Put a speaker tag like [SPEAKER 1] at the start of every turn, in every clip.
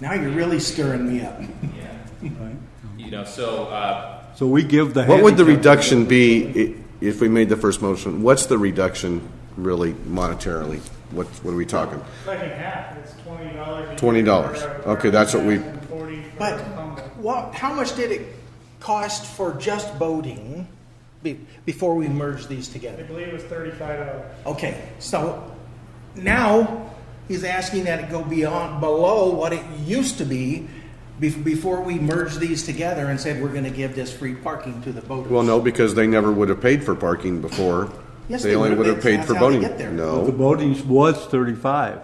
[SPEAKER 1] Now you're really stirring me up.
[SPEAKER 2] You know, so, uh,
[SPEAKER 3] So we give the.
[SPEAKER 4] What would the
[SPEAKER 3] handicap-
[SPEAKER 4] reduction be i- if we made the first motion? What's the reduction really monetarily? What, what are we talking?
[SPEAKER 5] Second half, it's twenty dollars.
[SPEAKER 4] $20. Okay, that's what we-
[SPEAKER 5] Forty for
[SPEAKER 1] But
[SPEAKER 5] a combo.
[SPEAKER 1] what? How much did it cost for just boating be, before we merged these
[SPEAKER 5] I
[SPEAKER 1] together?
[SPEAKER 5] believe it was thirty-five dollars.
[SPEAKER 1] Okay, so now he's asking that it go beyond below what it used to be. bef- Before we merged these together and said we're going to give this free parking to the boaters.
[SPEAKER 4] Well, no, because they never would have paid for parking before.
[SPEAKER 1] Yes,
[SPEAKER 4] They
[SPEAKER 1] they
[SPEAKER 4] only
[SPEAKER 1] would
[SPEAKER 4] would
[SPEAKER 1] have.
[SPEAKER 4] have paid
[SPEAKER 1] That's
[SPEAKER 4] for
[SPEAKER 1] how they
[SPEAKER 4] boating.
[SPEAKER 1] get there.
[SPEAKER 3] The
[SPEAKER 4] No,
[SPEAKER 3] voting was thirty-five.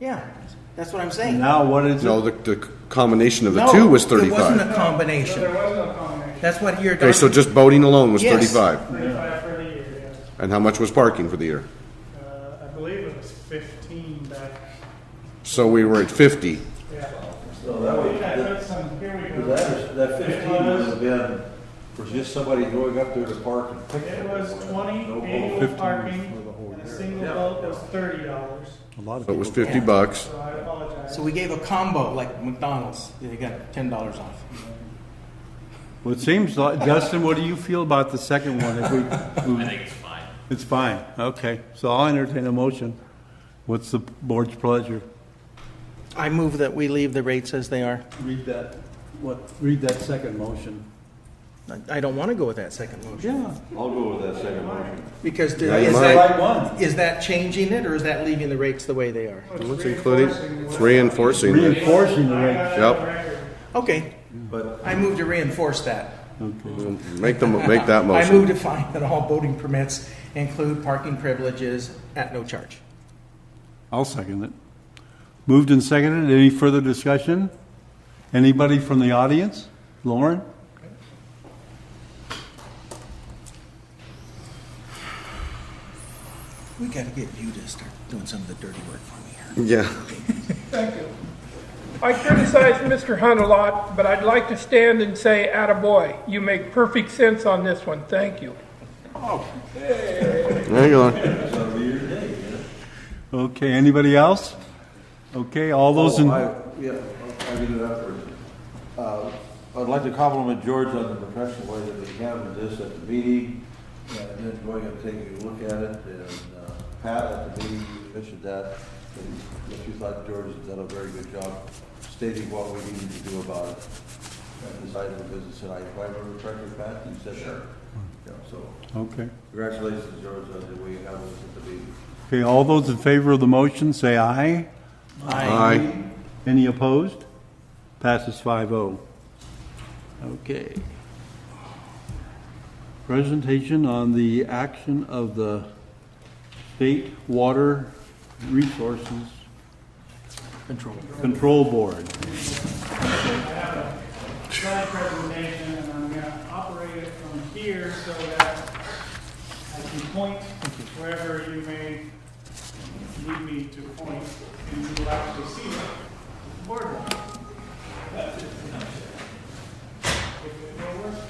[SPEAKER 1] Yeah, that's what I'm saying.
[SPEAKER 3] Now what is
[SPEAKER 4] no,
[SPEAKER 3] it?
[SPEAKER 4] the, the combination of the
[SPEAKER 1] No,
[SPEAKER 4] two was
[SPEAKER 1] It wasn't
[SPEAKER 4] thirty-five.
[SPEAKER 1] a
[SPEAKER 5] So
[SPEAKER 1] combination.
[SPEAKER 5] there was no combination,
[SPEAKER 1] That's what you're.
[SPEAKER 4] Okay, so just boating alone was
[SPEAKER 1] Yes.
[SPEAKER 4] thirty-five.
[SPEAKER 5] thirty-five for the year,
[SPEAKER 4] And how much was parking for the year?
[SPEAKER 5] yeah. Uh, I believe it was fifteen back,
[SPEAKER 4] So we were at fifty.
[SPEAKER 5] yeah.
[SPEAKER 6] So that
[SPEAKER 5] I
[SPEAKER 6] would,
[SPEAKER 5] think I
[SPEAKER 6] that,
[SPEAKER 5] put some, here we go.
[SPEAKER 6] that is- that
[SPEAKER 5] It
[SPEAKER 6] fifteen would
[SPEAKER 5] was-
[SPEAKER 6] have been for just somebody going up there to park and pick.
[SPEAKER 5] It
[SPEAKER 6] up.
[SPEAKER 5] was twenty,
[SPEAKER 6] No
[SPEAKER 5] annual
[SPEAKER 6] boat.
[SPEAKER 3] for the
[SPEAKER 5] parking,
[SPEAKER 3] whole
[SPEAKER 5] and a
[SPEAKER 3] year.
[SPEAKER 5] single
[SPEAKER 6] Yeah.
[SPEAKER 5] boat was thirty dollars,
[SPEAKER 3] A lot of
[SPEAKER 4] So it was
[SPEAKER 3] people-
[SPEAKER 4] fifty bucks.
[SPEAKER 5] so I apologize.
[SPEAKER 1] So we gave a combo like McDonald's. They got ten dollars off.
[SPEAKER 3] Well, it seems like, Justin, what do you feel about the second one? If we,
[SPEAKER 2] I think it's fine.
[SPEAKER 3] It's fine, okay. So I'll entertain a motion. What's the board's pleasure?
[SPEAKER 1] I move that we leave the rates as they are.
[SPEAKER 3] Read that, what, read that second motion.
[SPEAKER 1] I- I don't want to go with that second motion.
[SPEAKER 3] Yeah.
[SPEAKER 6] I'll go with that second motion.
[SPEAKER 1] Because do-
[SPEAKER 4] Yeah, you
[SPEAKER 1] is
[SPEAKER 4] might.
[SPEAKER 1] that,
[SPEAKER 3] Right one.
[SPEAKER 1] is that changing it or is that leaving the rates the way they are?
[SPEAKER 5] Which
[SPEAKER 4] What's including?
[SPEAKER 5] reinforcing
[SPEAKER 4] It's
[SPEAKER 5] what-
[SPEAKER 4] reinforcing that.
[SPEAKER 3] Reinforcing the
[SPEAKER 5] I
[SPEAKER 3] rank.
[SPEAKER 5] got it
[SPEAKER 4] Yep.
[SPEAKER 5] on record.
[SPEAKER 1] Okay,
[SPEAKER 6] But
[SPEAKER 1] I move to reinforce that.
[SPEAKER 4] Make them, make
[SPEAKER 1] I
[SPEAKER 4] that
[SPEAKER 1] move
[SPEAKER 4] motion.
[SPEAKER 1] to find that all boating permits include parking privileges at no charge.
[SPEAKER 3] I'll second it. Moved and seconded. Any further discussion? Anybody from the audience? Lauren?
[SPEAKER 1] We got to get you to start doing some of the dirty work for me here.
[SPEAKER 4] Yeah.
[SPEAKER 7] I criticize Mr. Hunt a lot, but I'd like to stand and say, attaboy, you make perfect sense on this one, thank you.
[SPEAKER 4] Hang on.
[SPEAKER 3] Okay, anybody else? Okay, all those in,
[SPEAKER 6] Oh, I- Yeah, I'll get it afterwards. Uh, I'd like to compliment George on the professional way that he handled this at the meeting, and then going and taking a look at it, and uh, Pat at the meeting, you mentioned that, and that you thought George had done a very good job stating what we needed to do about it. And decided the business, and I, if I remember correctly, Pat, you said that. Yeah, so
[SPEAKER 3] okay.
[SPEAKER 6] congratulations, George, on the way you handled this at the meeting.
[SPEAKER 3] Okay, all those in favor of the motion, say aye.
[SPEAKER 4] Aye.
[SPEAKER 3] Any opposed? Passes oh. 5-0. Okay. Presentation on the action of the State Water Resources
[SPEAKER 1] Control.
[SPEAKER 3] Control Board.
[SPEAKER 5] slide presentation, and I'm gonna operate it from here so that I can point wherever you may need me to point, and you will actually see it. Board.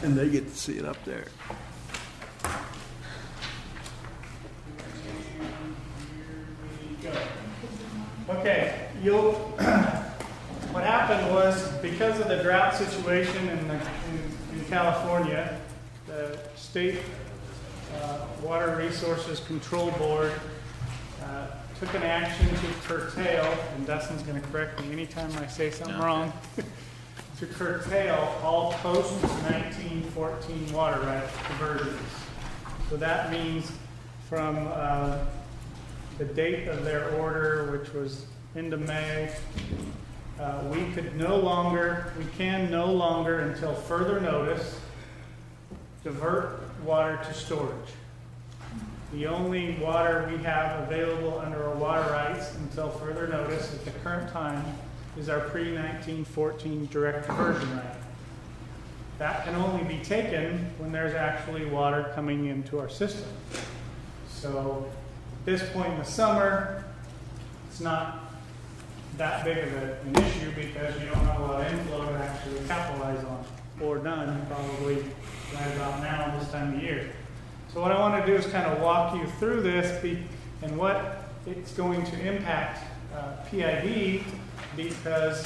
[SPEAKER 3] And they get to see it up there.
[SPEAKER 5] Okay, you'll, what happened was, because of the drought situation in, the- in- in California, the state uh, Water Resources Control Board uh, took an action to curtail, and Dustin's gonna correct me anytime I say something wrong, to curtail all post-1914 water rights diversions. So that means from uh, the date of their order, which was end of May, uh, we could no longer, we can no longer, until further notice, divert water to storage. The only water we have available under our water rights until further notice at the current time is our pre-1914 direct diversion right. That can only be taken when there's actually water coming into our system. So at this point in the summer, it's not that big of a- an issue because you don't have a lot of inflow to actually capitalize on, or none, probably right about now, this time of year. So what I want to do is kind of walk you through this be- and what it's going to impact uh, PID because